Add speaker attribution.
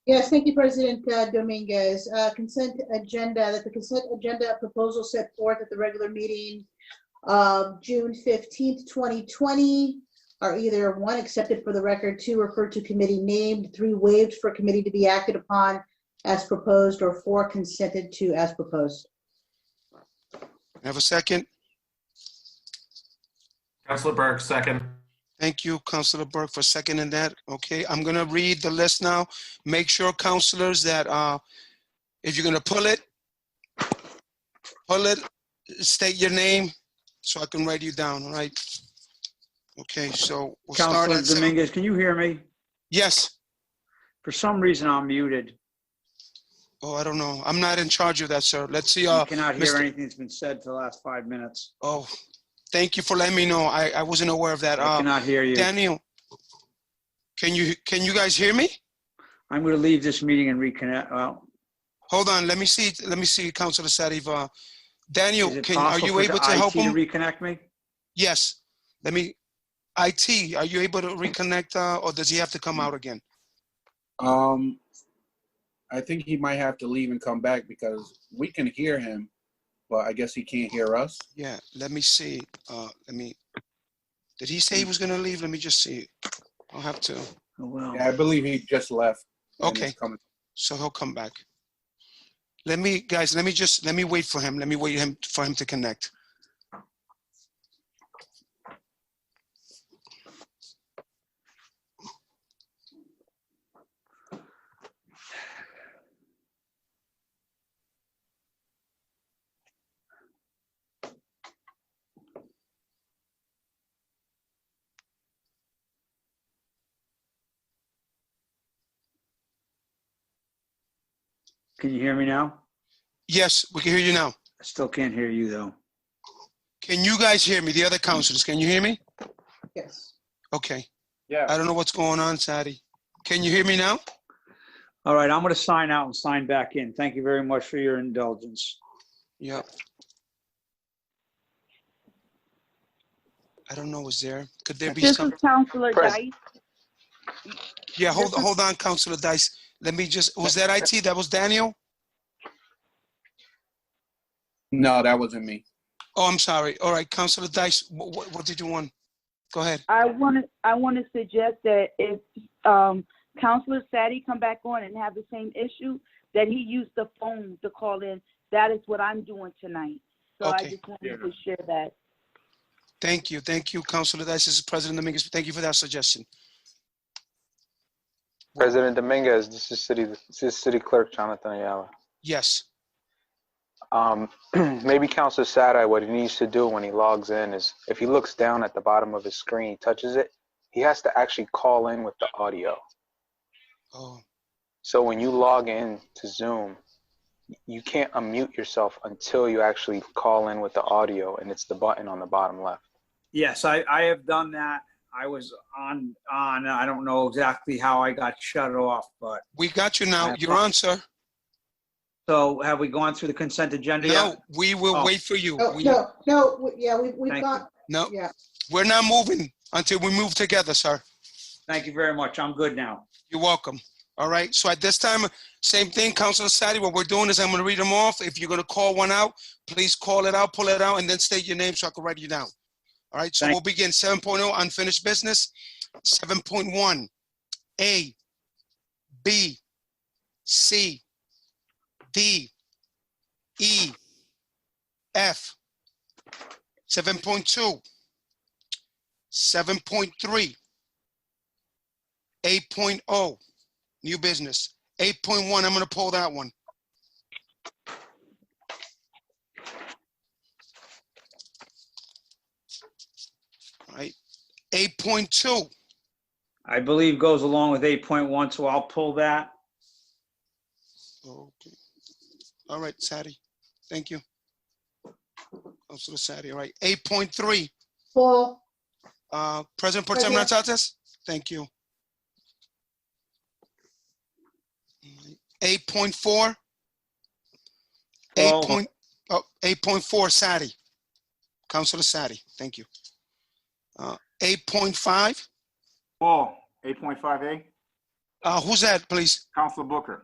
Speaker 1: Yes, thank you, President uh, Dominguez. Uh, Consent agenda, that the consent agenda proposal set forth at the regular meeting of June 15th, 2020 are either one, accepted for the record, two, referred to committee named, three, waived for committee to be acted upon as proposed, or four, consented to as proposed.
Speaker 2: May I Have a second?
Speaker 3: Counselor Burke, second.
Speaker 2: Thank you, Counselor Burke, for seconding that. Okay, I'm gonna read the list now. Make sure, counselors, that uh, if you're gonna pull it, pull it, state your name so I can write you down, all right? Okay, so we'll start
Speaker 4: Counselor
Speaker 2: at seven.
Speaker 4: Dominguez, can you hear me?
Speaker 2: Yes,
Speaker 4: For some reason, I'm muted.
Speaker 2: oh, I don't know. I'm not in charge of that, sir. Let's see,
Speaker 4: I
Speaker 2: uh,
Speaker 4: cannot hear
Speaker 2: Mr.
Speaker 4: anything that's been said for the last five minutes.
Speaker 2: oh, thank you for letting me know. I, I wasn't aware of that.
Speaker 4: I
Speaker 2: Uh,
Speaker 4: cannot hear you.
Speaker 2: Daniel, can you, can you guys hear me?
Speaker 4: I'm going to leave this meeting and reconnect. Well,
Speaker 2: Hold on, let me see, let me see, Counselor Sariva. Daniel,
Speaker 4: is it
Speaker 2: can, are
Speaker 4: possible
Speaker 2: you
Speaker 4: for the
Speaker 2: able to
Speaker 4: IT
Speaker 2: help
Speaker 4: to
Speaker 2: him?
Speaker 4: reconnect me?
Speaker 2: Yes, let me, IT, are you able to reconnect, uh, or does he have to come out again?
Speaker 5: Um, I think he might have to leave and come back because we can hear him, but I guess he can't hear us.
Speaker 2: Yeah, let me see, uh, let me, did he say he was gonna leave? Let me just see. I'll have to,
Speaker 4: Oh, well.
Speaker 5: Yeah, I believe he just left. and is
Speaker 2: Okay.
Speaker 5: coming.
Speaker 2: so he'll come back. Let me, guys, let me just, let me wait for him, let me wait him, for him to connect.
Speaker 4: Can you hear me now?
Speaker 2: Yes, we can hear you now.
Speaker 4: I still can't hear you, though.
Speaker 2: Can you guys hear me? The other counselors, can you hear me?
Speaker 1: Yes.
Speaker 2: Okay,
Speaker 5: Yeah.
Speaker 2: I don't know what's going on, Sadi. Can you hear me now?
Speaker 4: All right, I'm going to sign out and sign back in. Thank you very much for your indulgence.
Speaker 2: Yep. I don't know, is there, could there be
Speaker 6: This
Speaker 2: some,
Speaker 6: is Counselor Dice.
Speaker 2: yeah, hold,
Speaker 6: this is-
Speaker 2: hold on, Counselor Dice. Let me just, was that IT? That was Daniel?
Speaker 5: No, that wasn't me.
Speaker 2: Oh, I'm sorry. All right, Counselor Dice, what, what did you want? Go ahead.
Speaker 6: I want to, I want to suggest that if, um, Counselor Sadi come back on and have the same issue, that he use the phone to call in. That is what I'm doing tonight. So I
Speaker 2: Okay.
Speaker 6: just wanted to share that.
Speaker 2: Thank you, thank you, Counselor Dice. This is President Dominguez. Thank you for that suggestion.
Speaker 7: President Dominguez, this is City, this is City Clerk Jonathan Ayala.
Speaker 2: Yes,
Speaker 7: Um, maybe Counselor Sadi, what he needs to do when he logs in is, if he looks down at the bottom of his screen, touches it, he has to actually call in with the audio.
Speaker 2: oh,
Speaker 7: So when you log in to Zoom, you can't unmute yourself until you actually call in with the audio, and it's the button on the bottom left.
Speaker 4: Yes, I, I have done that. I was on, on, I don't know exactly how I got shut off, but,
Speaker 2: we got you now. You're on, sir.
Speaker 4: so have we gone through the consent agenda yet?
Speaker 2: No, we will
Speaker 4: Oh.
Speaker 2: wait for you.
Speaker 1: No,
Speaker 2: We-
Speaker 1: no, no, we- yeah, we- we've
Speaker 4: Thank you.
Speaker 1: got,
Speaker 2: No,
Speaker 1: yeah.
Speaker 2: we're not moving until we move together, sir.
Speaker 4: Thank you very much. I'm good now.
Speaker 2: You're welcome. All right. So at this time, same thing, Councilor Sadi. What we're doing is I'm going to read them off. If you're going to call one out, please call it out, pull it out, and then state your name so I can write you down. All right. So
Speaker 4: Thank-
Speaker 2: we'll begin 7.0 unfinished business, 7.1 A, B, C, D, E, F, 7.2, 7.3, 8.0, oh, new business. 8.1, I'm gonna pull that one. All right, 8.2,
Speaker 4: I believe goes along with 8.1, so I'll pull that.
Speaker 2: okay. All right, Sadi, thank you. Counselor Sadi, all right, 8.3,
Speaker 1: Paul?
Speaker 2: uh, President Pro Tem
Speaker 1: President.
Speaker 2: Natsatsas? Thank you. All right, 8.4,
Speaker 4: Oh.
Speaker 2: 8.0, 8.4, Sadi. Counselor Sadi, thank you. Uh, 8.5,
Speaker 8: Paul, eight point five A,
Speaker 9: Uh, who's that, please?
Speaker 2: Counselor Booker.